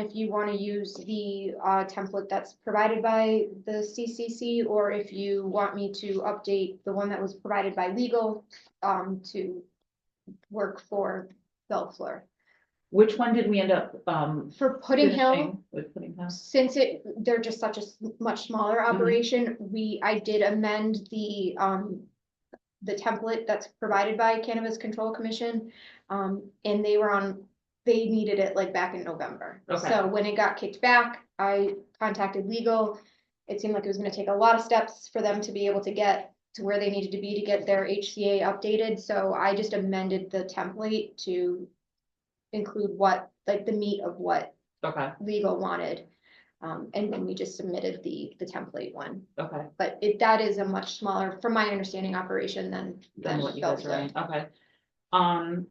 if you want to use the uh, template that's provided by the CCC, or if you want me to update the one that was provided by legal um, to work for Bellflower. Which one did we end up, um? For Pudding Hill, finishing With Pudding Hill? since it, they're just such a s- much smaller operation, we, I did amend the, um, the template that's provided by Cannabis Control Commission, um, and they were on, they needed it like back in November. Okay. So when it got kicked back, I contacted legal. It seemed like it was gonna take a lot of steps for them to be able to get to where they needed to be to get their HCA updated, so I just amended the template to include what, like the meat of what Okay, legal wanted. Um, and then we just submitted the, the template one, okay, but it, that is a much smaller, from my understanding, operation than. then what you guys are, Belfleur. in, okay. Um.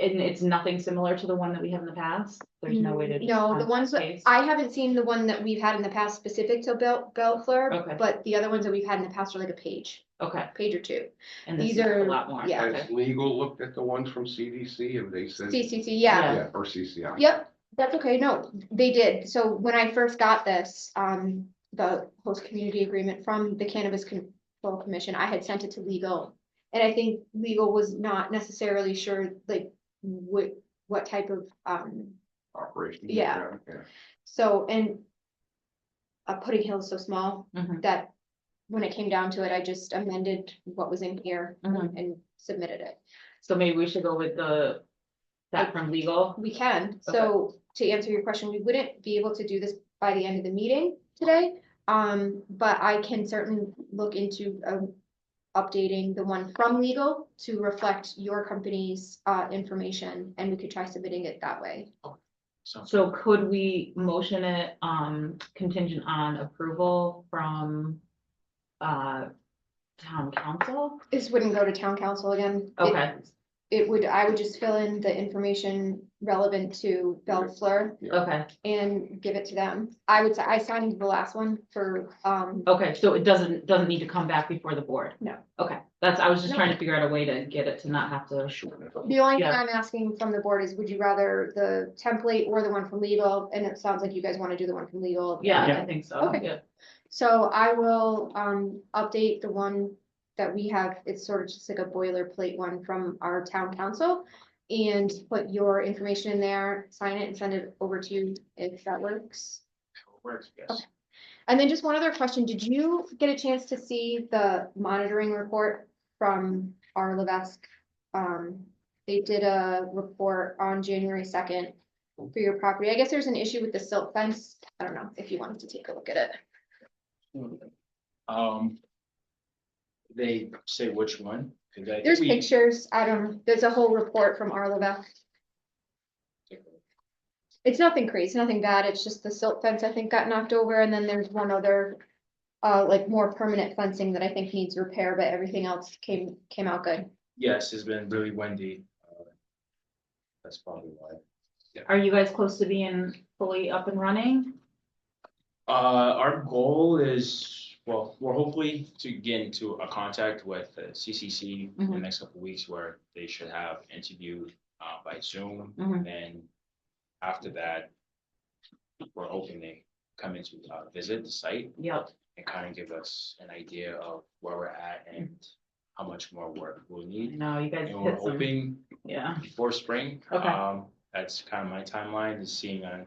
And it's nothing similar to the one that we have in the past? There's no way to. just No, the contact ones that, base? I haven't seen the one that we've had in the past specific to Bel, Okay. Belfleur, but the other ones that we've had in the past are like a page, Okay, page or two. and this these is a are- lot more. yeah. okay. Has legal looked at the ones from CDC and they said? CCC, yeah, Yeah, or CCI. Yep, that's okay, no, they did, so when I first got this, um, the host community agreement from the Cannabis Control Commission, I had sent it to legal. And I think legal was not necessarily sure, like, what, what type of, um, Operation. Yeah. so, and. Uh, Pudding Hill is so small Mhm. that when it came down to it, I just amended what was in here Mhm. and submitted it. So maybe we should go with the, that from legal? We can, so to answer your question, we wouldn't be able to do this by the end of the meeting today. Um, but I can certainly look into, um, updating the one from legal to reflect your company's, uh, information, and we could try submitting it that way. So could we motion it, um, contingent on approval from, uh, town council? This wouldn't go to town council again. It- Okay. It would, I would just fill in the information relevant to Bellfleur Okay, and give it to them. I would, say I signed the last one for, um, okay, so it doesn't, doesn't need to come back before the board? No. Okay, that's, I was just No. trying to figure out a way to get it to not have to, The only thing Yeah. I'm asking from the board is, would you rather the template or the one from legal? And it sounds like you guys want to do the one from legal. yeah, I think so, Okay. yeah, So I will, um, update the one that we have. It's sort of just like a boilerplate one from our town council. And put your information in there, sign it and send it over to you if that works. Works, yes. Okay. And then just one other question. Did you get a chance to see the monitoring report from our Levesque? Um, they did a report on January second for your property. I guess there's an issue with the silt fence. I don't know if you wanted to take a look at it. Um. They say which one? 'Cause I- There's we- pictures. I don't know. There's a whole report from our Levesque. It's nothing crazy, nothing bad. It's just the silt fence, I think, got knocked over and then there's one other. Uh, like more permanent fencing that I think needs repair, but everything else came, came out good. Yes, it's been really windy. uh, That's probably why. are you guys close to being fully up and running? Uh, our goal is, well, we're hopefully to get into a contact with the CCC in Mm-hmm. the Mhm. next couple of weeks where they should have interview uh by Zoom. Mm-hmm. Mhm. And then after that, we're hoping they come into uh visit the site Yep, and kind of give us an idea of where we're at and how much more work we'll I need. know, you guys And we're hit some, hoping yeah, before spring. Okay. Um, that's kind of my timeline is seeing on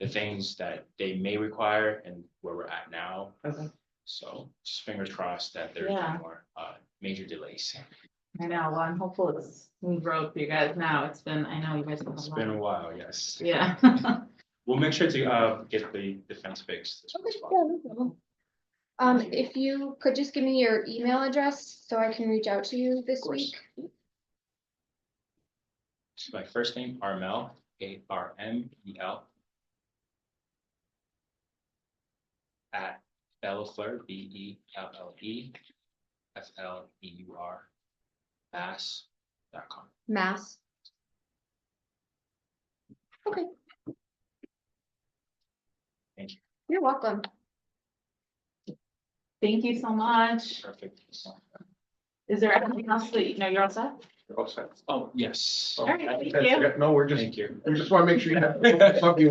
the things that they may require and where we're at now. okay, So just fingers crossed that there's no Yeah. more uh major delays. I know, well, I'm hopeful it's smooth road for you guys now, it's been, I know you guys. have a It's lot. been a while, yes. Yeah. We'll make sure to uh get the the fence fixed. as soon as possible. Um, Thank you. if you could just give me your email address so I can reach out to you this course. week. My first name, Armel, A R M E L. At Bellefleur, B E L L E, F L E U R, Mass dot com. Mass. Okay. Thank you. You're welcome. Thank you so much. Perfect. Is there anything else that, you know, you're all set? All set. Oh, yes. All right, thank That's you. it. No, we're just, Thank you. we just want to make sure you have something you